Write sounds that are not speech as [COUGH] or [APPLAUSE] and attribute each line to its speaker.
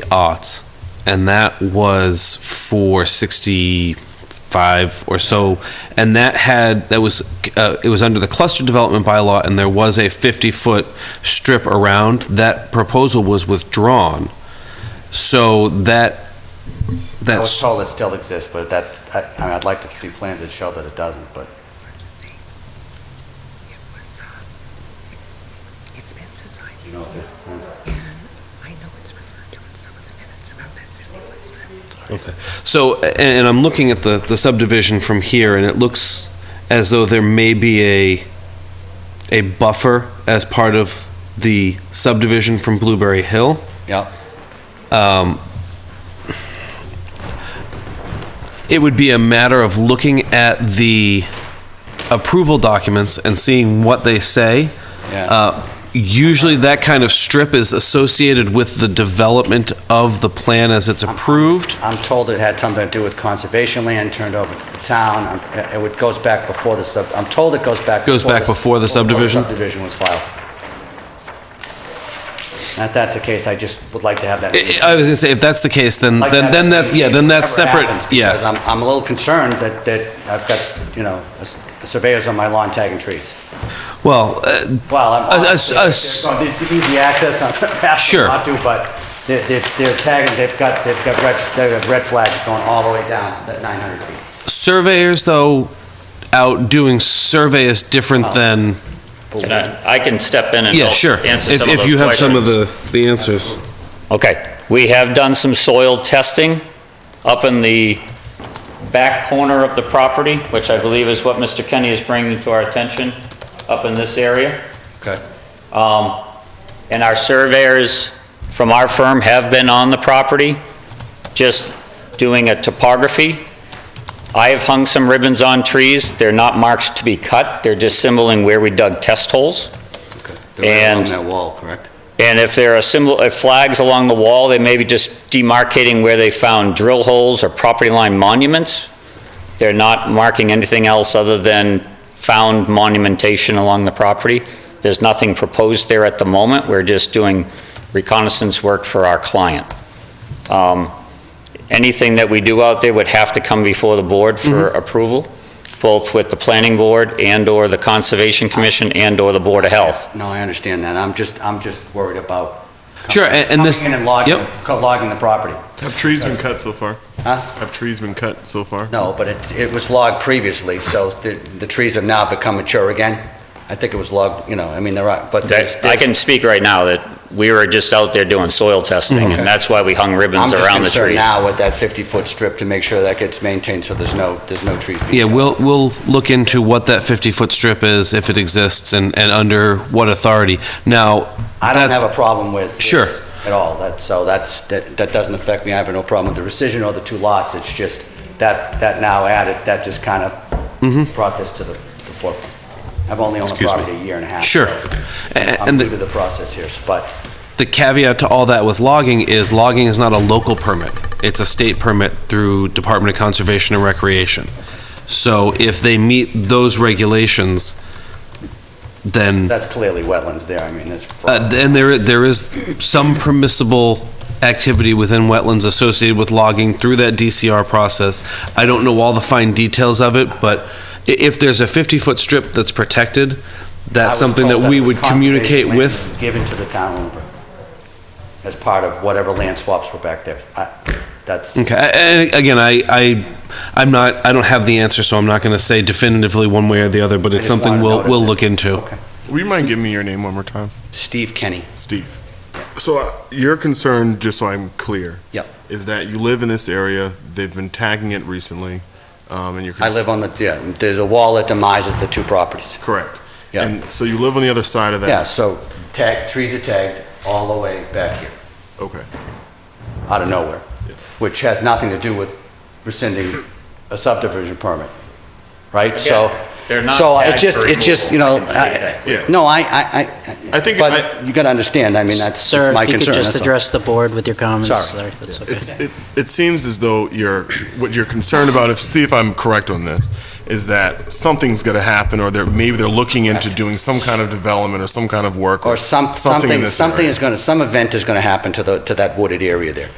Speaker 1: the aughts, and that was for sixty-five or so, and that had that was uh, it was under the cluster development bylaw, and there was a fifty-foot strip around. That proposal was withdrawn, so that
Speaker 2: I was
Speaker 1: that's
Speaker 2: told it still exists, but that, I, I mean, I'd like to see plans that show that it doesn't, but
Speaker 3: such a thing. It was, uh, it's, it's been since I.
Speaker 2: you know, if-
Speaker 3: And I know it's referred to in some of the minutes about that fifty-foot strip.
Speaker 1: Okay. So, a- and I'm looking at the, the subdivision from here, and it looks as though there may be a, a buffer as part of the subdivision from Blueberry Hill.
Speaker 2: yeah,
Speaker 1: It would be a matter of looking at the approval documents and seeing what they say.
Speaker 2: Yeah.
Speaker 1: Uh, Usually, that kind of strip is associated with the development of the plan as it's approved.
Speaker 2: I'm told it had something to do with conservation land turned over to the town. I'm- It would- goes back before the sub, I'm told it goes back.
Speaker 1: Goes back before the subdivision?
Speaker 2: Subdivision was filed. And if that's the case, I just would like to have that.
Speaker 1: I- I was gonna say, if that's the case, Eh, uh, then,
Speaker 2: like
Speaker 1: then, then that, yeah, then that's
Speaker 2: Whatever
Speaker 1: separate,
Speaker 2: happens,
Speaker 1: yeah.
Speaker 2: Because I'm, I'm a little concerned that, that I've got, you know, a s- surveyors on my lawn tagging trees.
Speaker 1: Well, uh,
Speaker 2: Well, I'm,
Speaker 1: A- a-
Speaker 2: honestly,
Speaker 1: a-
Speaker 2: it's it's easy access, I'm [LAUGHS] fast
Speaker 1: Sure.
Speaker 2: not to, but they're, they're they're tagging, they've got, they've got red, they've got red flags going all the way down, that 900 feet.
Speaker 1: surveyors though out doing survey is different than
Speaker 4: Can I, I can step in and
Speaker 1: yeah
Speaker 4: help
Speaker 1: sure
Speaker 4: answer
Speaker 1: if,
Speaker 4: some of
Speaker 1: if
Speaker 4: those
Speaker 1: you have some of
Speaker 4: questions.
Speaker 1: the the answers
Speaker 4: Okay, we have done some soil testing up in the back corner of the property, which I believe is what Mr. Kenny is bringing to our attention, up in this area.
Speaker 2: Okay.
Speaker 4: Um, And our surveyors from our firm have been on the property, just doing a topography. I have hung some ribbons on trees. They're not marked to be cut. They're just symboling where we dug test holes.
Speaker 2: They're right
Speaker 4: And-
Speaker 2: Along that wall, correct?
Speaker 4: And if there are symbol, if flags along the wall, they may be just demarcating where they found drill holes or property line monuments. They're not marking anything else other than found monumentation along the property. There's nothing proposed there at the moment. We're just doing reconnaissance work for our client. Um, Anything that we do out there would have to come before the board for
Speaker 2: Mm-hmm.
Speaker 4: approval, both with the planning board and/or the conservation commission and/or the board of health.
Speaker 2: No, I understand that, I'm just, I'm just worried about.
Speaker 1: Sure, and- and this-
Speaker 2: Coming in and logging,
Speaker 1: yep.
Speaker 2: co- logging the property.
Speaker 5: Have trees been cut so far?
Speaker 2: Huh?
Speaker 5: Have trees been cut so far?
Speaker 2: No, but it, it was logged previously, so the, the trees have now become mature again. I think it was logged, you know, I mean, there are, but there's.
Speaker 4: That, I can speak right now that we were just out there doing soil testing, and that's why we hung ribbons around the
Speaker 2: I'm just concerned
Speaker 4: trees.
Speaker 2: now with that 50-foot strip to make sure that gets maintained, so there's no, there's no trees being
Speaker 1: yeah we'll we'll look into what that 50 foot strip is if it exists and and under what authority now
Speaker 2: I
Speaker 1: that-
Speaker 2: don't have a problem with. with
Speaker 1: Sure.
Speaker 2: At all, that, so that's, that, that doesn't affect me, I have no problem with the rescission or the two lots, it's just that, that now added, that just kind of brought this to the, the forefront. I've only owned the
Speaker 1: Mm-hmm. Excuse me.
Speaker 2: property a year and a half.
Speaker 1: Sure.
Speaker 2: so
Speaker 1: A- a-
Speaker 2: I'm
Speaker 1: and the-
Speaker 2: new to the process here, but,
Speaker 1: the caveat to all that with logging is logging is not a local permit. It's a state permit through Department of Conservation and Recreation. So if they meet those regulations, then,
Speaker 2: that's clearly wetlands there, I mean, it's.
Speaker 1: uh, then there, there is some permissible activity within wetlands associated with logging through that DCR process. I don't know all the fine details of it, but i- if there's a 50-foot strip that's protected,
Speaker 2: I
Speaker 1: that's
Speaker 2: was
Speaker 1: something that
Speaker 2: told
Speaker 1: we
Speaker 2: it was
Speaker 1: would communicate
Speaker 2: conservation land
Speaker 1: with.
Speaker 2: Given to the town owner as part of whatever land swaps were back there. I- That's,
Speaker 1: Okay, a- and again, I, I, I'm not, I don't have the answer, so I'm not gonna say definitively one way or the other, but it's
Speaker 2: just
Speaker 1: something
Speaker 2: wanted to
Speaker 1: we'll, we'll
Speaker 2: notice it.
Speaker 1: look into.
Speaker 2: Okay.
Speaker 5: Will you mind giving me your name one more time?
Speaker 2: Steve Kenny,
Speaker 5: Steve. So uh, your concern, just so I'm clear,
Speaker 2: yep.
Speaker 5: is that you live in this area, they've been tagging it recently, um, and you're.
Speaker 2: I live on the, yeah, there's a wall that demises the two properties.
Speaker 5: Correct.
Speaker 2: Yeah.
Speaker 5: And so you live on the other side of that?
Speaker 2: Yeah, so tag, trees are tagged all the way back here,
Speaker 5: Okay.
Speaker 2: out of nowhere, which has nothing to do with rescinding a subdivision permit, right? So,
Speaker 4: They're not
Speaker 2: So it
Speaker 4: tagged
Speaker 2: just,
Speaker 4: for
Speaker 2: it just, you know,
Speaker 4: removal. I can say that
Speaker 5: Yeah.
Speaker 2: I- no, I, I, I.
Speaker 5: I think I-
Speaker 2: But you gotta understand, I mean, that's that's
Speaker 6: Sir,
Speaker 2: my
Speaker 6: if you
Speaker 2: concern.
Speaker 6: could just
Speaker 2: that's all.
Speaker 6: address the board with your comments.
Speaker 2: Sorry.
Speaker 6: That's okay.
Speaker 5: It's, it, it seems as though you're, what you're concerned about, if, see if I'm correct on this, is that something's gonna happen, or they're, maybe they're looking into doing some kind of development or some kind of work.
Speaker 2: Or some,
Speaker 5: in
Speaker 2: something,
Speaker 5: this
Speaker 2: something
Speaker 5: area.
Speaker 2: is gonna, some event is gonna happen to the, to that wooded area there.